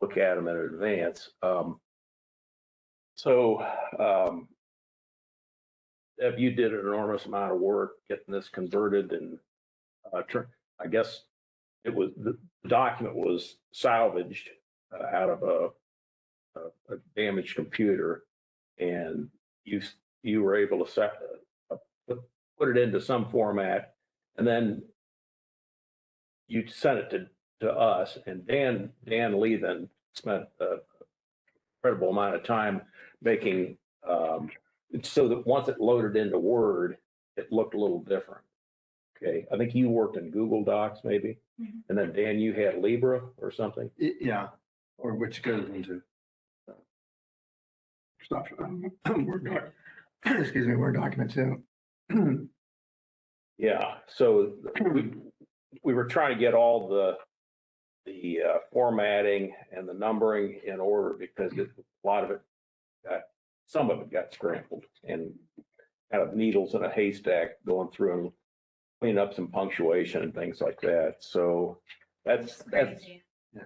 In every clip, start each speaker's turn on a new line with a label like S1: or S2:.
S1: look at them in advance. Um, so, um, Deb, you did an enormous amount of work getting this converted and, uh, tur- I guess it was, the document was salvaged uh, out of a, a, a damaged computer. And you, s- you were able to set, uh, put, put it into some format and then you sent it to to us and Dan, Dan Lee then spent a incredible amount of time making, um, it's so that once it loaded into Word, it looked a little different. Okay, I think you worked in Google Docs maybe,
S2: Mhm.
S1: and then Dan, you had Libra or something?
S3: Y- Yeah, or which goes into. Stop, Word doc, excuse me, Word document too.
S1: Yeah, so we, we were trying to get all the, the uh, formatting and the numbering in order because it- a lot of it got, some of it got scrambled and kind of needles in a haystack going through and cleaning up some punctuation and things like that. So that's, that's,
S2: Crazy.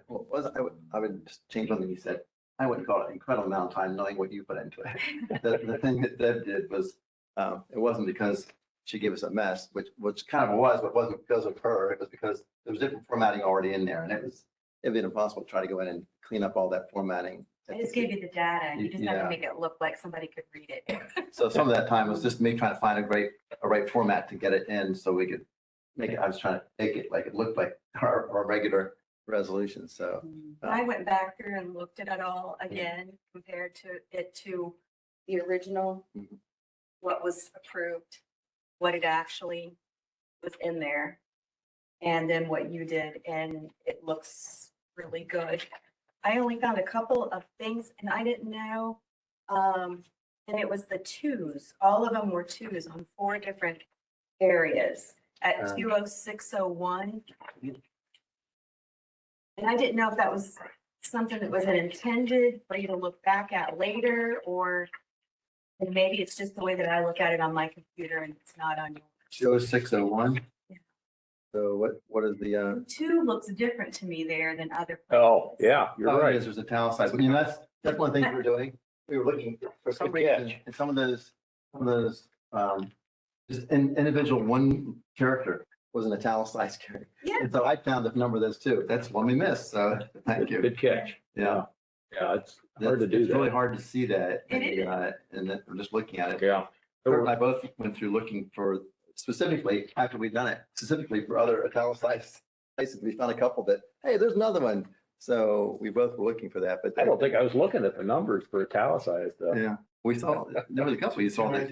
S4: Well, was, I would, I would just change something you said. I wouldn't call it an incredible amount of time knowing what you put into it. The, the thing that Deb did was, um, it wasn't because she gave us a mess, which, which kind of was, but wasn't because of her. It was because there was different formatting already in there and it was, it'd been impossible to try to go in and clean up all that formatting.
S2: I just gave you the data. You just have
S4: Yeah.
S2: to make it look like somebody could read it.
S4: So some of that time was just me trying to find a great, a right format to get it in so we could make it, I was trying to make it like it looked like our, our regular resolution. So Oh.
S2: I went back through and looked at it all again, compared to it to the original,
S4: Mhm.
S2: what was approved, what it actually was in there, and then what you did, and it looks really good. I only found a couple of things and I didn't know, um, and it was the twos, all of them were twos on four different areas at
S4: Um.
S2: two oh six oh one. And I didn't know if that was something that was intended for you to look back at later, or and maybe it's just the way that I look at it on my computer and it's not on yours.
S4: oh six oh one.
S2: Yeah.
S4: So what, what is the, uh?
S2: Two looks different to me there than other.
S1: oh,
S2: places.
S1: yeah, you're
S4: Oh, it
S1: right.
S4: is, There's a town size. But, You know, that's, that's one of the things we were doing. We were looking for some reason, and some of those, some of those, um, just in, individual one character was an italicized character.
S2: Yeah.
S4: And so I found the number of those too. That's one we missed. So thank you.
S1: Good catch.
S4: Yeah.
S1: Yeah, it's hard to
S4: That's-
S1: do
S4: It's really
S1: that.
S4: hard to see that.
S2: It
S4: and,
S2: is.
S4: uh, And then I'm just looking at it.
S1: Yeah.
S4: Kurt and I both went through looking for specifically, after we'd done it, specifically for other italicized places. We found a couple that, hey, there's another one. So we both were looking for that, but.
S1: I don't think I was looking at the numbers for italicized stuff.
S4: Yeah, we saw, there was a couple you saw that.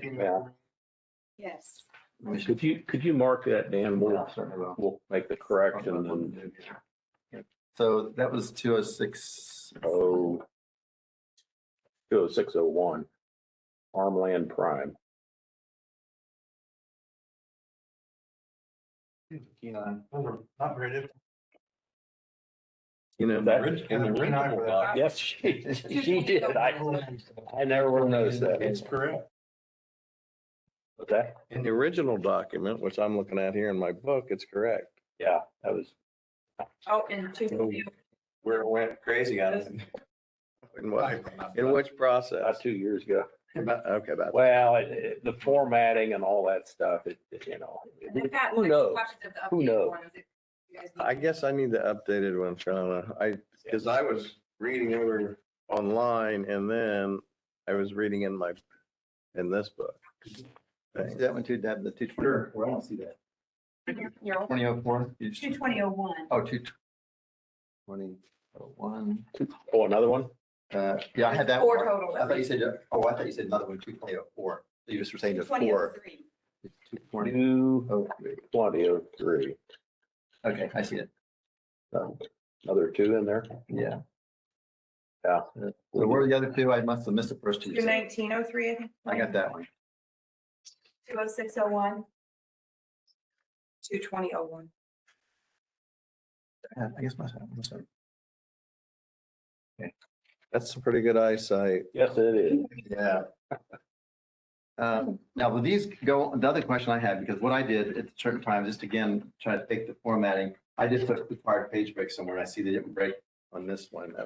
S2: Yes.
S4: we should-
S1: Could you, could you mark that, Dan? We'll,
S4: Yeah, certainly will.
S1: we'll make the correction and
S4: So that was two oh six.
S1: Oh. Two oh six oh one. Farmland Prime.
S5: Not very different.
S1: You know,
S5: Rich-
S1: that,
S5: and the
S6: Keep an eye
S5: original
S6: for that.
S5: doc-
S1: yes, she, she did. I, I never would have noticed
S5: It's
S1: that.
S5: correct.
S1: But that,
S6: In the original document, which I'm looking at here in my book, it's correct.
S1: yeah, that was,
S7: Oh, and two,
S6: Where it went crazy on it. In what, in
S5: Right.
S6: which process?
S1: about uh, two years ago.
S4: About-
S6: Okay, about,
S1: Well, it- it- the formatting and all that stuff, it, it, you know.
S7: and I've got
S1: Who
S7: like
S1: knows?
S7: copies of the
S1: Who
S7: updated
S1: knows?
S7: ones if you guys need
S6: I guess I need the updated one, Shauna. I, because I was reading over online and then I was reading in my, in this book.
S4: I see That one too, Deb, the two twenty. Sure. I don't see that. Twenty oh four.
S2: Two twenty oh one.
S4: Oh, two. Twenty oh one.
S1: Oh, another one?
S4: Uh, yeah, I had that.
S7: Four
S4: one.
S7: total.
S4: I thought you said, oh, I thought you said another one, two twenty oh four. You just were saying the four.
S2: 2003.
S4: Two twenty
S1: Two
S4: oh three.
S1: twenty oh three.
S4: Okay, I see it.
S1: Another two in there?
S4: Yeah.
S1: Yeah.
S4: Uh, So what were the other two? I must have missed the first two.
S7: Two nineteen oh three, I think.
S4: I got that one.
S7: Two oh six oh one. Two twenty oh one.
S4: Yeah, I guess my. I'm sorry.
S6: That's a pretty good eyesight.
S1: Yes, it is.
S4: Yeah. Um, Now, will these go, the other question I had, because what I did at certain times, just again, try to take the formatting, I just took the required page break somewhere. I see they didn't break on this one.